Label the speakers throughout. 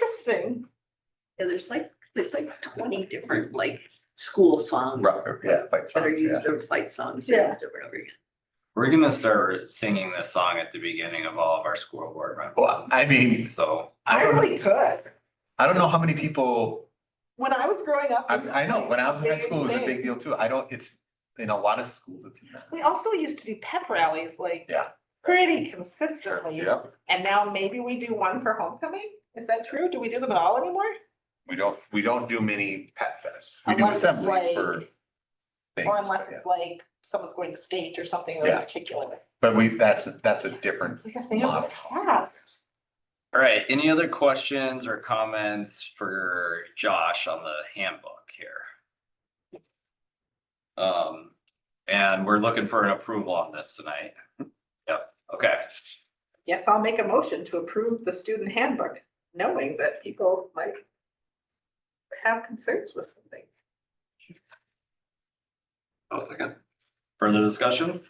Speaker 1: interesting.
Speaker 2: Yeah, there's like, there's like twenty different like school songs
Speaker 3: Rough, yeah, fight
Speaker 2: that are
Speaker 3: songs, yeah.
Speaker 2: used, or fight songs
Speaker 1: Yeah.
Speaker 2: are used over and over again.
Speaker 4: We're gonna start singing this song at the beginning of all of our school board
Speaker 3: Well,
Speaker 4: rounds.
Speaker 3: I mean,
Speaker 4: So,
Speaker 3: I don't, know-
Speaker 1: Probably could.
Speaker 3: I don't know how many people,
Speaker 1: When I was growing up.
Speaker 3: I,
Speaker 1: this
Speaker 3: I know,
Speaker 1: was
Speaker 3: when I was in high
Speaker 1: like a
Speaker 3: school, it was a
Speaker 1: thing.
Speaker 3: big deal too. I don't, it's, in a lot of schools, it's not.
Speaker 1: We also used to do pep rallies like.
Speaker 3: Yeah.
Speaker 1: Pretty consistently.
Speaker 3: Yeah.
Speaker 1: And now maybe we do one for homecoming? Is that true? Do we do them at all anymore?
Speaker 3: We don't, we don't do many pet fests. We do
Speaker 1: Unless it's
Speaker 3: assemblies
Speaker 1: like-
Speaker 3: for things.
Speaker 1: Or
Speaker 3: but
Speaker 1: unless
Speaker 3: yeah.
Speaker 1: it's like someone's going to state or something really
Speaker 3: Yeah.
Speaker 1: particular.
Speaker 3: But we, that's, that's a different,
Speaker 1: It's like a thing of the past.
Speaker 4: all right, any other questions or comments for Josh on the handbook here? Um, and we're looking for an approval on this tonight. Yep, okay.
Speaker 1: Yes, I'll make a motion to approve the student handbook, knowing that people might have concerns with some things.
Speaker 4: One second. Further discussion?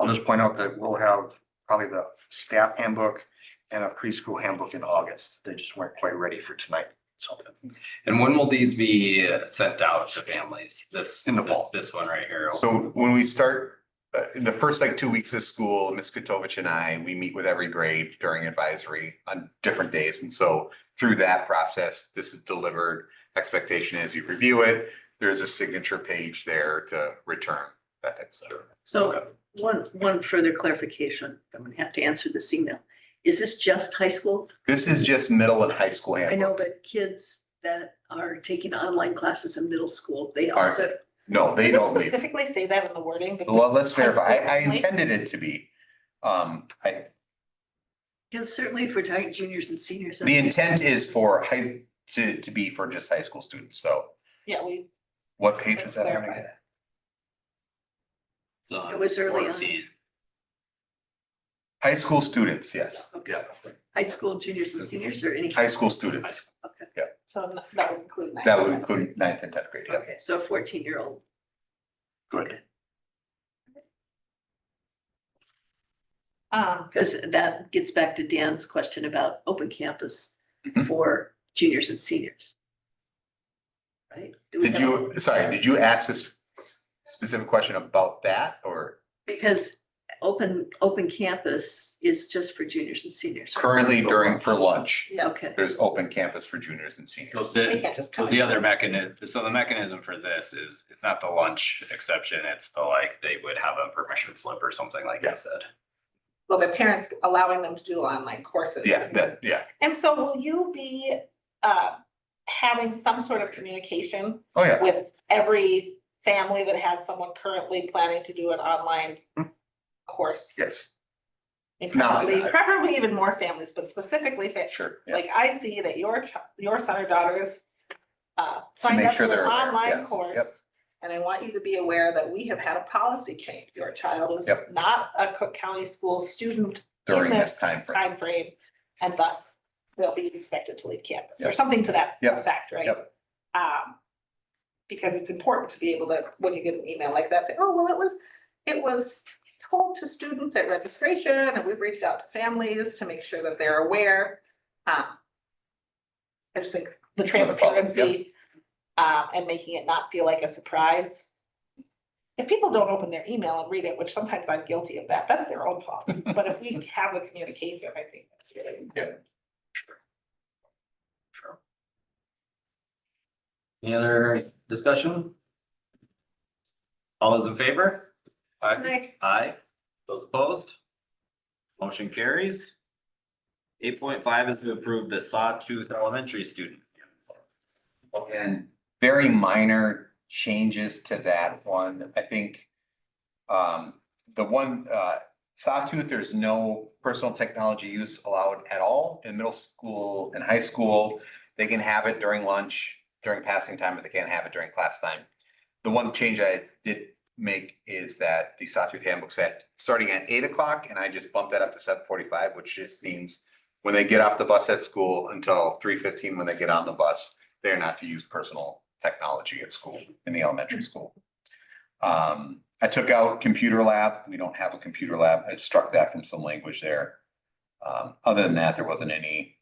Speaker 5: I'll just point out that we'll have probably the staff handbook and a preschool handbook in August. They just weren't quite ready for tonight. So
Speaker 4: And when will these be sent out to families? This,
Speaker 5: In the
Speaker 4: this,
Speaker 5: fall.
Speaker 4: this one right here.
Speaker 3: so when we start, uh, in the first like two weeks of school, Ms. Katovich and I, we meet with every grade during advisory on different days. And so through that process, this is delivered. Expectation is you review it, there's a signature page there to return that type of stuff.
Speaker 2: So one, one further clarification, I'm gonna have to answer this email. Is this just high school?
Speaker 3: This is just middle and high school
Speaker 2: I
Speaker 3: handbook.
Speaker 2: know, but kids that are taking online classes in middle school, they
Speaker 3: Are-
Speaker 2: also,
Speaker 3: No, they
Speaker 1: Does it
Speaker 3: don't leave.
Speaker 1: specifically say that in the wording? The-
Speaker 3: Well, let's
Speaker 1: High
Speaker 3: verify. I,
Speaker 1: school,
Speaker 3: I
Speaker 1: like-
Speaker 3: intended it to be. Um, I,
Speaker 2: because certainly if we're talking juniors and seniors.
Speaker 3: the intent is for high, to, to be for just high school students, so
Speaker 1: Yeah, we.
Speaker 3: what page
Speaker 1: let's
Speaker 3: is that on
Speaker 1: clarify
Speaker 3: again?
Speaker 1: that.
Speaker 4: It's on
Speaker 2: It was early on.
Speaker 4: 14.
Speaker 3: High school students, yes,
Speaker 2: Okay.
Speaker 3: yeah,
Speaker 2: High school juniors and seniors or any.
Speaker 3: high school students,
Speaker 2: Okay,
Speaker 1: So n- that would include. nine
Speaker 3: that would
Speaker 1: hundred.
Speaker 3: include ninth and tenth grade, yeah.
Speaker 2: okay, so a fourteen year old.
Speaker 5: Good.
Speaker 1: Um,
Speaker 2: Because that gets back to Dan's question about open campus
Speaker 3: Mhm.
Speaker 2: for juniors and seniors. Right? Do we have-
Speaker 3: Did you, sorry, did you ask this specific question about that, or
Speaker 2: Because open, open campus is just for juniors and seniors. right?
Speaker 3: currently during, for lunch?
Speaker 2: Yeah, okay.
Speaker 3: There's open campus for juniors and
Speaker 4: So
Speaker 3: seniors.
Speaker 1: we
Speaker 4: the,
Speaker 1: can't just
Speaker 4: So
Speaker 1: cut
Speaker 4: the other
Speaker 1: this.
Speaker 4: mechanism, so the mechanism for this is, it's not the lunch exception, it's the like, they would have a permission slip or something like you
Speaker 3: Yes.
Speaker 4: said.
Speaker 1: Well, the parents allowing them to do online courses.
Speaker 3: Yeah, that, yeah,
Speaker 1: And so will you be uh having some sort of communication
Speaker 3: oh, yeah,
Speaker 1: with every family that has someone currently planning to do an online
Speaker 3: Hmm.
Speaker 1: course?
Speaker 3: yes,
Speaker 1: And
Speaker 3: No,
Speaker 1: Probably,
Speaker 3: I-
Speaker 1: preferably even more families, but specifically fa-
Speaker 3: sure, yeah.
Speaker 1: like I see that your chi- your son or daughters uh signed
Speaker 3: make
Speaker 1: up for
Speaker 3: sure
Speaker 1: an
Speaker 3: they're aware,
Speaker 1: online
Speaker 3: yes,
Speaker 1: course.
Speaker 3: yep.
Speaker 1: And I want you to be aware that we have had a policy change. Your child is
Speaker 3: Yep.
Speaker 1: not a Cook County school student
Speaker 3: during
Speaker 1: in
Speaker 3: this time frame.
Speaker 1: timeframe, and thus they'll be expected to leave campus or
Speaker 3: Yep.
Speaker 1: something to that
Speaker 3: Yep.
Speaker 1: effect, right?
Speaker 3: Yep.
Speaker 1: Um, because it's important to be able to, when you get an email like that, say, oh, well, it was, it was told to students at registration and we've reached out to families to make sure that they're aware. Um, I just think the
Speaker 3: Another problem, yep.
Speaker 1: transparency, um, and making it not feel like a surprise. If people don't open their email and read it, which sometimes I'm guilty of that, that's their own fault. But if we have the communication, I think that's really important.
Speaker 4: Sure. Any other discussion? All those in favor? Aye.
Speaker 1: Right.
Speaker 4: Aye. Those opposed? Motion carries. Eight point five is to approve the sawtooth elementary student.
Speaker 3: And very minor changes to that one, I think. Um, the one, uh, Sawtooth, there's no personal technology use allowed at all in middle school and high school. They can have it during lunch, during passing time, but they can't have it during class time. The one change I did make is that the Sawtooth handbook said, starting at eight o'clock, and I just bumped that up to seven forty-five, which just means when they get off the bus at school until three fifteen when they get on the bus, they're not to use personal technology at school, in the elementary school. Um, I took out computer lab, we don't have a computer lab, I struck that from some language there. Um, other than that, there wasn't any